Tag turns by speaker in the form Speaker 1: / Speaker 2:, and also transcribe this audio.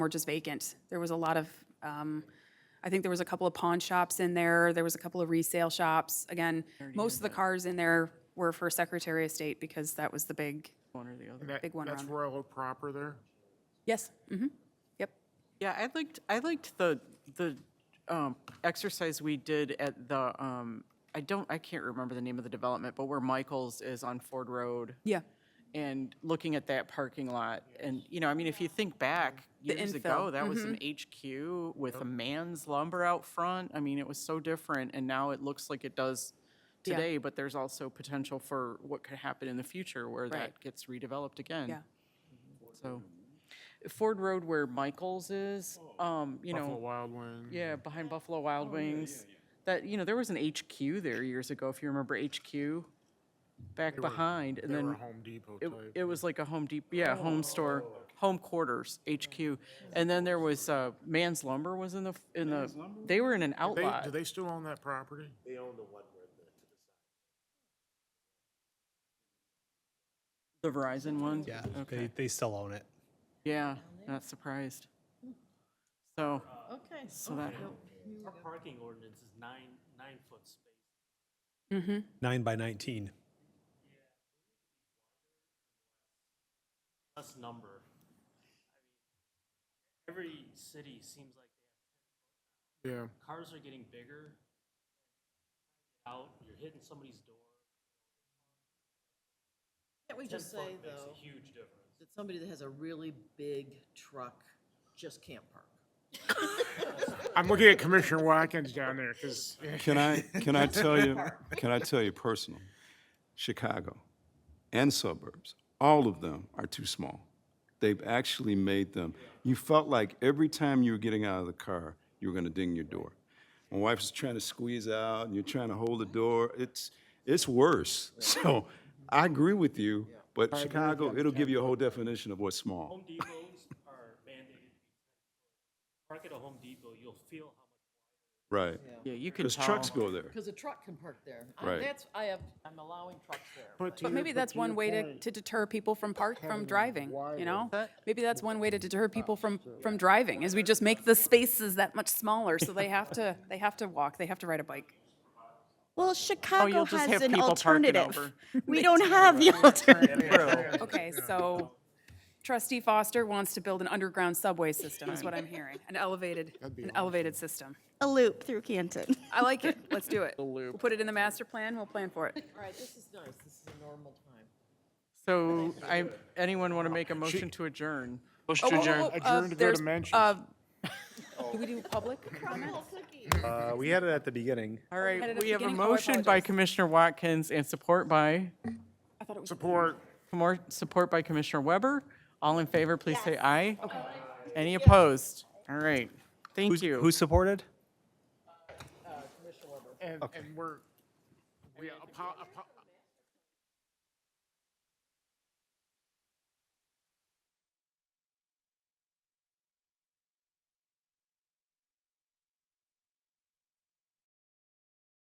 Speaker 1: were just vacant. There was a lot of, um, I think there was a couple of pawn shops in there, there was a couple of resale shops. Again, most of the cars in there were for Secretary of State because that was the big,
Speaker 2: one or the other.
Speaker 3: And that-
Speaker 1: Big one
Speaker 3: That's
Speaker 1: around.
Speaker 3: Royal Oak proper there?
Speaker 1: yes, hmm yep.
Speaker 2: Yeah, I liked, I liked the, the um, exercise we did at the, um, I don't, I can't remember the name of the development, but where Michael's is on Ford Road
Speaker 1: Yeah,
Speaker 2: and looking at that parking lot. And, you know, I mean, if you think back years ago,
Speaker 1: infill, Mm-hmm.
Speaker 2: that was an HQ with a man's lumber out front. I mean, it was so different and now it looks like it does
Speaker 1: Yeah.
Speaker 2: today, but there's also potential for what could happen in the future where that gets redeveloped again.
Speaker 1: yeah,
Speaker 2: So Ford Road where Michael's is, um, you
Speaker 3: Buffalo
Speaker 2: know,
Speaker 3: Wild Wings?
Speaker 2: yeah, behind Buffalo
Speaker 3: Oh,
Speaker 2: Wild Wings. That, you know, there was an HQ there years ago, if you remember HQ, back behind, and
Speaker 3: They were
Speaker 2: then
Speaker 3: Home Depot
Speaker 2: it,
Speaker 3: type. Oh,
Speaker 2: it was like a Home Depot, yeah, home store, home quarters, HQ. And then there was, uh, Man's Lumber was in the, f- in the, they were in an
Speaker 3: They- Do
Speaker 2: outlot.
Speaker 3: they still own that property?
Speaker 2: The Verizon one?
Speaker 4: Yeah, they, they still own it.
Speaker 2: Yeah, not surprised. So,
Speaker 5: Okay.
Speaker 2: so that,
Speaker 6: Our parking ordinance is nine, nine foot space.
Speaker 4: Nine by 19.
Speaker 6: Less number. Every city seems like
Speaker 3: Yeah.
Speaker 6: they have, cars are getting bigger. Out, you're hitting somebody's door.
Speaker 5: Can't we just
Speaker 6: 10 foot
Speaker 5: say,
Speaker 6: Makes
Speaker 5: though,
Speaker 6: a huge difference.
Speaker 5: that somebody that has a really big truck just can't park?
Speaker 3: I'm looking at Commissioner Watkins down there because
Speaker 7: Can I, can I tell you, can I tell you personal? Chicago and suburbs, all of them are too small. They've actually made them, you felt like every time you were getting out of the car, you were gonna ding your door. My wife was trying to squeeze out and you're trying to hold the door. It's, it's worse. So I agree with you, but Chicago, it'll give you a whole definition of what's small.
Speaker 6: Home Depots are mandated. to be 10 foot. Park at a Home Depot, you'll feel how much.
Speaker 7: Right.
Speaker 2: yeah, you can
Speaker 7: Because
Speaker 2: tell.
Speaker 7: trucks go there.
Speaker 5: Because a truck can park there. I-
Speaker 7: Right.
Speaker 5: That's, I have, I'm allowing trucks there.
Speaker 3: But
Speaker 1: but maybe that's one way to, to deter people from park, from driving, you know? Maybe that's one way to deter people from, from driving, is we just make the spaces that much smaller, so they have to, they have to walk, they have to ride a bike.
Speaker 8: Well, Chicago
Speaker 2: Oh, you'll just have
Speaker 8: has an
Speaker 2: people parking
Speaker 8: alternative.
Speaker 2: over.
Speaker 8: We don't have the alternative.
Speaker 1: Okay, so trustee Foster wants to build an underground subway system, is what I'm hearing, an elevated, an elevated system.
Speaker 8: A loop through Canton.
Speaker 1: I like it, let's do it. We'll put it in the master plan, we'll plan for it.
Speaker 5: All right, this is nice. This is a normal time.
Speaker 2: So I, anyone want to make a motion to adjourn?
Speaker 1: Oh, whoa, whoa, whoa, uh,
Speaker 3: adjourn to go to
Speaker 1: there's,
Speaker 3: mentions.
Speaker 1: uh, Do we do public comment?
Speaker 4: Uh, we had it at the beginning.
Speaker 2: All
Speaker 1: had it
Speaker 2: right,
Speaker 1: at the
Speaker 2: we have a
Speaker 1: beginning. Oh, I
Speaker 2: motion by
Speaker 1: apologize.
Speaker 2: Commissioner Watkins and support by,
Speaker 1: I thought it was,
Speaker 3: support.
Speaker 2: more support by Commissioner Weber. All in favor, please say aye. Any opposed? All right, thank you.
Speaker 4: Who supported?
Speaker 3: And, and we're, we apo- apo-